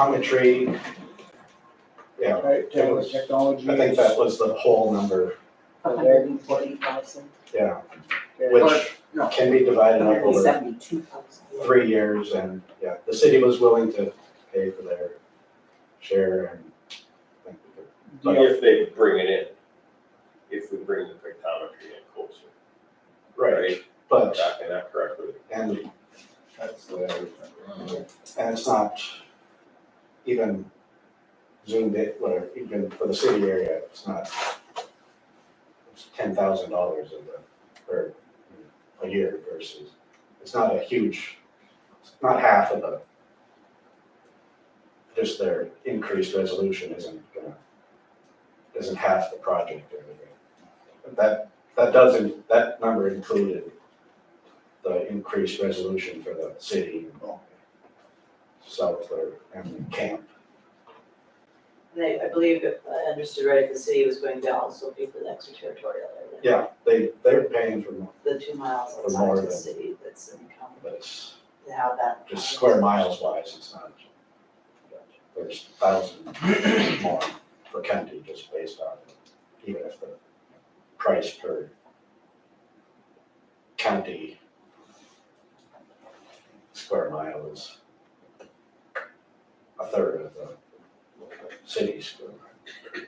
optometry. Yeah, Right, Taylor technology. I think that was the whole number, hundred and forty thousand, yeah, which no, can be divided up hundred and over seventy-two thousand. three years and, yeah, the city was willing to pay for their share and. I think we could- But- If they bring it in, if we bring the pictometry in closer, right? But, Tracking that correctly. and That's the way I remember. it. And it's not even zoomed in, or even for the city area, it's not, it's ten thousand dollars of the, or a year versus, it's not a huge, it's not half of the, just their increased resolution isn't gonna, isn't half the project or anything. But That, that doesn't, that number included the increased resolution for the city Southler and Camp. And I, I believe if I understood right, the city was going to also pay for the extraterritorial area, Yeah, they, they're paying for, more, the two miles For more outside than- the city that's in common, but it's to have that. just square miles wise, it's not. There's thousand more per county just based on, even if the price per county square mile is a third of the city's square mile.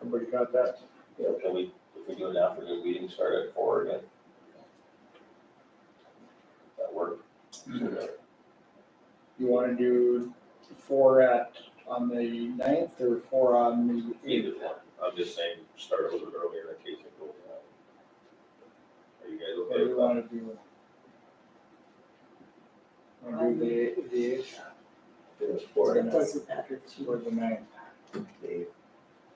Everybody got that? You know, Can we, if we do an afternoon meeting, start at four again? That work? Mm-hmm. You wanna do four at, on the ninth or four on the eighth? Either one, I'm just saying, start a little bit earlier in case it goes out. Are you guys What okay do you with wanna do? Wanna do the eighth, the eighth that? It's or the It ninth, doesn't matter to me. or the ninth? The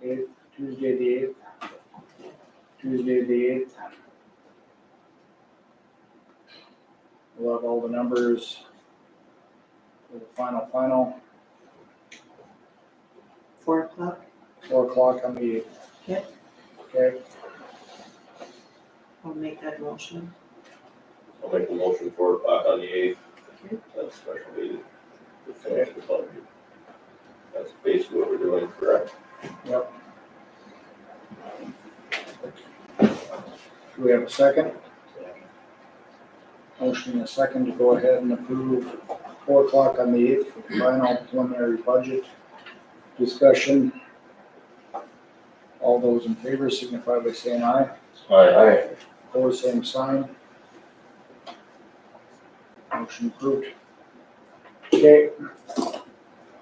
Eighth, Tuesday the eighth? Tuesday the eighth? We'll have all the numbers for the final, final, Four o'clock, four o'clock on the eighth. Yep. Okay, I'll make that motion. I'll make the motion for o'clock on the eighth. Okay. That's special meeting. to finish the budget. That's basically what we're doing, correct? do we have a second? Motion and a second to go ahead and approve four o'clock on the eighth for the final preliminary budget discussion. All those in favor signify by saying aye. Alright. Opposed, same sign. Motion approved. Okay.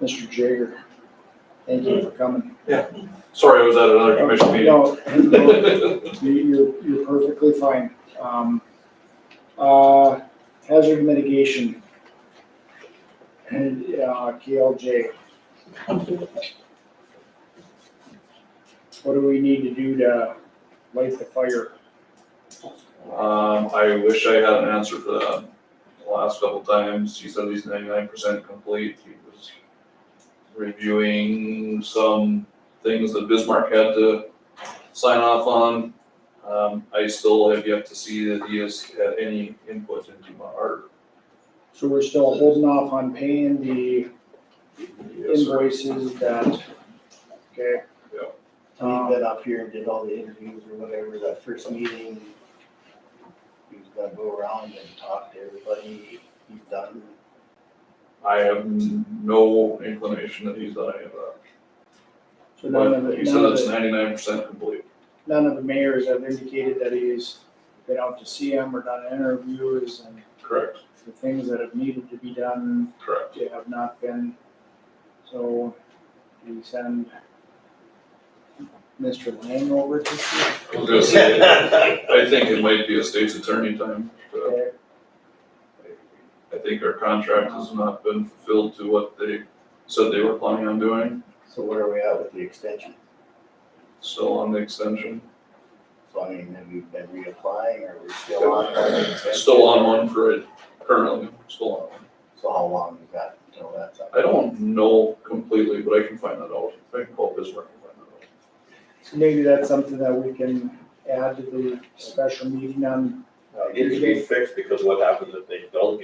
Mr. Jager, thank you for coming. Sorry, I was at another commission meeting. No, no, you- You're, you're perfectly fine. Um, uh, hazard mitigation. And, uh, KLJ, what do we need to do to light the fire? Um, I wish I had an answer for that. The last couple times, he said he's ninety-nine percent complete. He was reviewing some things that Bismarck had to sign off on. Um, I still have yet to see that he has had any input into my art. So we're still holding off on paying the invoices that, okay, Um, So he got up here and did all the interviews or whatever, that first meeting. He was gonna go around and talk to everybody, he's done. I have no inclination that he's done any of that. so none of the, But He none said of it's the, ninety-nine percent complete. none of the mayors have indicated that he's been out to see him or done interviews and Correct, the things that have needed to be done, correct. they have not been. So, do we send Mr. Lang over to see? I was gonna say, I think it might be a state's attorney time. but Okay, I think our contract has not been fulfilled to what they said they were planning on doing, So where are we at with the extension? still on the extension. So I mean, have we been reapplying or we're still on the extension? Still on one for it currently, still on one. So how long is that until that's up? I don't know completely, but I can find that out. I can call Bismarck and find that out. so maybe that's something that we can add to the special meeting on It needs to be fixed because what happens if they don't